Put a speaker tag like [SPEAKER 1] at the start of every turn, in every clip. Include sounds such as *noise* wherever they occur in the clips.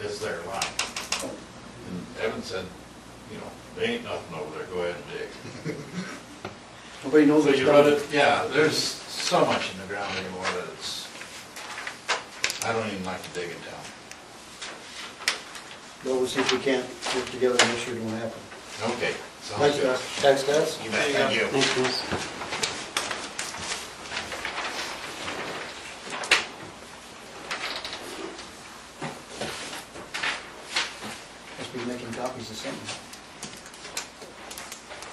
[SPEAKER 1] it's their line. And Evan said, you know, they ain't nothing over there, go ahead and dig.
[SPEAKER 2] *laughs* Nobody knows
[SPEAKER 1] So
[SPEAKER 2] it's
[SPEAKER 1] you run
[SPEAKER 2] done.
[SPEAKER 1] it, yeah, there's so much in the ground anymore that it's, I don't even like to dig in town.
[SPEAKER 2] But we'll see if we can't work together and this year it won't happen.
[SPEAKER 1] Okay, sounds
[SPEAKER 2] Thanks,
[SPEAKER 1] good.
[SPEAKER 2] guys. Thanks, guys.
[SPEAKER 1] You bet, thank you.
[SPEAKER 2] Must be making copies of something.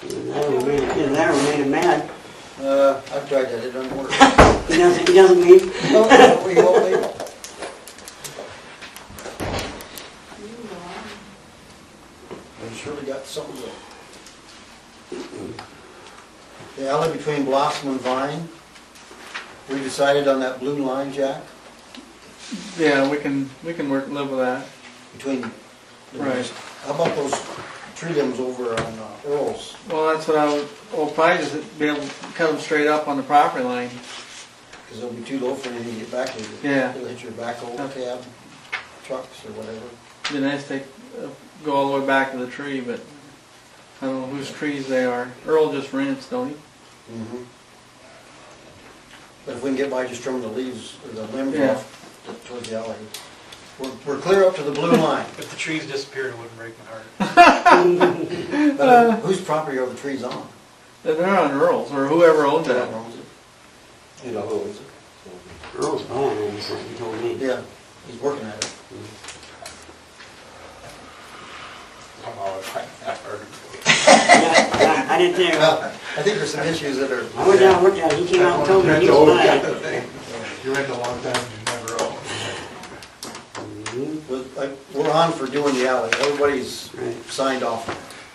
[SPEAKER 3] And that'll remain, and that'll remain a mad.
[SPEAKER 2] Uh, I've tried that, it doesn't work. *laughs* Oh,
[SPEAKER 3] He doesn't, he doesn't mean, *laughs*
[SPEAKER 2] No, no, we won't leave it. We surely got something to The alley between Blossom and Vine, we decided on that blue line, Jack,
[SPEAKER 4] Yeah, we can, we can work, live with that.
[SPEAKER 2] between. the-
[SPEAKER 4] Right.
[SPEAKER 2] How about those tree limbs over on uh, Earl's?
[SPEAKER 4] Well, that's what I would, well, probably just be able to cut them straight up on the property line.
[SPEAKER 2] Because it'll be too low for anything to get back to. you.
[SPEAKER 4] Yeah.
[SPEAKER 2] It'll hit your backhoe cab, trucks or whatever.
[SPEAKER 4] Be nice to uh, go all the way back to the tree, but I don't know whose trees they are. Earl just rents, don't he? Mm-hmm.
[SPEAKER 2] Mhm. But if we can get by just trimming the leaves or the limbs
[SPEAKER 4] Yeah.
[SPEAKER 2] off t- towards the alley. We're, we're clear up to the blue
[SPEAKER 4] *laughs*
[SPEAKER 2] line,
[SPEAKER 5] If the trees disappeared, it wouldn't break my heart.
[SPEAKER 2] but um, whose property are the trees on?
[SPEAKER 4] They're on Earl's or whoever owns
[SPEAKER 2] Who
[SPEAKER 4] that.
[SPEAKER 2] owns it?
[SPEAKER 6] You know who is it?
[SPEAKER 3] Earl's gone, and so he told me.
[SPEAKER 2] Yeah, he's working at it.
[SPEAKER 6] Oh, I heard it.
[SPEAKER 3] Yeah, I I didn't there.
[SPEAKER 2] Well, I think there's some issues that are,
[SPEAKER 3] I went down, and looked at it, he came out and told me he was mad.
[SPEAKER 6] You're in a long time, you never own.
[SPEAKER 3] Mhm,
[SPEAKER 2] we're- like, we're on for doing the alley, everybody's
[SPEAKER 3] Right.
[SPEAKER 2] signed off.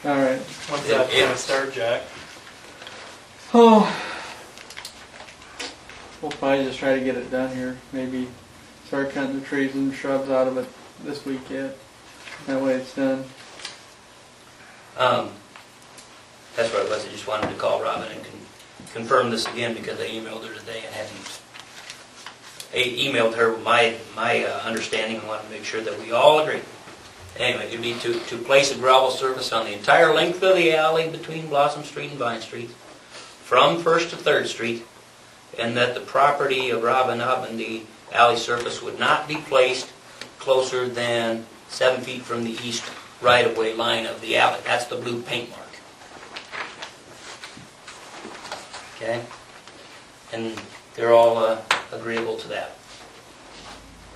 [SPEAKER 2] on it.
[SPEAKER 4] All right.
[SPEAKER 5] When's that gonna start, Jack?
[SPEAKER 4] Oh. We'll probably just try to get it done here. Maybe start cutting the trees and shrubs out of it this week yet. That way it's done.
[SPEAKER 7] Um, that's where I was, I just wanted to call Robin and con- confirm this again because I emailed her today and hadn't, I emailed her my, my uh, understanding and wanted to make sure that we all agree. Anyway, it'd be to, to place a gravel surface on the entire length of the alley between Blossom Street and Vine Street, from First to Third Street, and that the property of Robin Hobb and the alley surface would not be placed closer than seven feet from the east right-of-way line of the alley. That's the blue paint mark. Okay? And they're all uh, agreeable to that.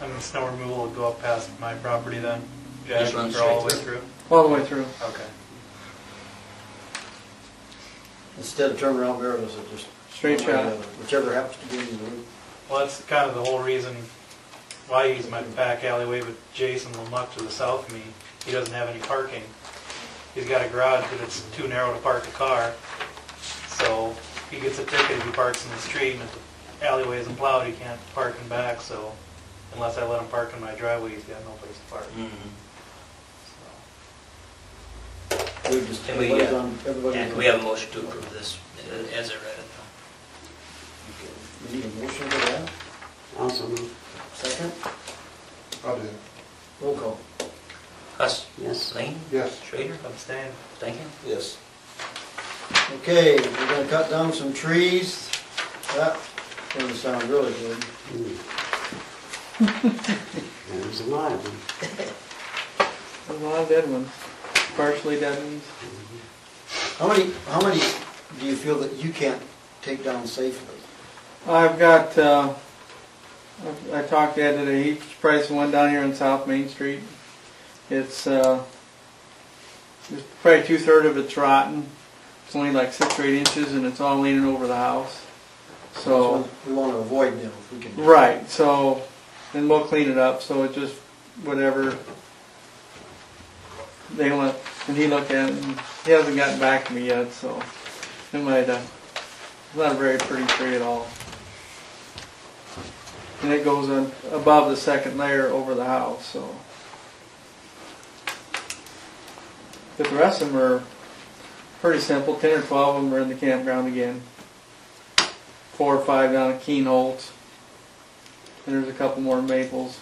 [SPEAKER 5] I mean, snow removal will go up past my property then?
[SPEAKER 7] Just
[SPEAKER 5] Jack,
[SPEAKER 7] run
[SPEAKER 5] for all the way
[SPEAKER 7] straight
[SPEAKER 5] through?
[SPEAKER 4] All the way through.
[SPEAKER 5] Okay.
[SPEAKER 2] Instead of turning around barrels, it just.
[SPEAKER 4] Straight
[SPEAKER 2] one way or the
[SPEAKER 4] shot.
[SPEAKER 2] other, Whichever happens to be in the route.
[SPEAKER 5] Well, that's kind of the whole reason why I use my back alleyway with Jason Lamuck to the south of me. He doesn't have any parking. He's got a garage, but it's too narrow to park a car. So he gets a ticket if he parks in the street, and if the alleyway isn't plowed, he can't park in back, so unless I let him park in my driveway, he's got no place to park. So,
[SPEAKER 2] We just,
[SPEAKER 7] Can we,
[SPEAKER 2] everybody's
[SPEAKER 7] uh,
[SPEAKER 2] on, everybody's
[SPEAKER 7] And
[SPEAKER 2] on.
[SPEAKER 7] can we have a motion to approve this uh, as I read it?
[SPEAKER 2] We need a motion for that,
[SPEAKER 3] Also, moved.
[SPEAKER 2] second,
[SPEAKER 6] I'll do.
[SPEAKER 2] roll call.
[SPEAKER 7] Huss,
[SPEAKER 3] yes.
[SPEAKER 7] Lane,
[SPEAKER 6] Yes.
[SPEAKER 7] Schrader,
[SPEAKER 5] Abstain.
[SPEAKER 7] Stankin?
[SPEAKER 2] Yes. Okay, we're gonna cut down some trees. That doesn't sound really good.
[SPEAKER 3] Mm. *laughs* There's a lot of them.
[SPEAKER 4] There's a lot of dead ones. Partially dead ones.
[SPEAKER 2] How many, how many do you feel that you can't take down safely?
[SPEAKER 4] I've got, uh, I I talked to Ed today, he's pricing one down here on South Main Street. It's, uh, it's probably two-thirds of it's rotten. It's only like six or eight inches and it's all leaning over the house. So,
[SPEAKER 2] We wanna avoid them if we can.
[SPEAKER 4] Oh. right, so, and we'll clean it up, so it just, whatever. They want, and he looked at it and he hasn't gotten back to me yet, so. It might, uh, it's not a very pretty tree at all. And it goes on above the second layer over the house, so. But the rest of them are pretty simple, ten or twelve of them are in the campground again. Four or five down at Keenholz. And there's a couple more maples.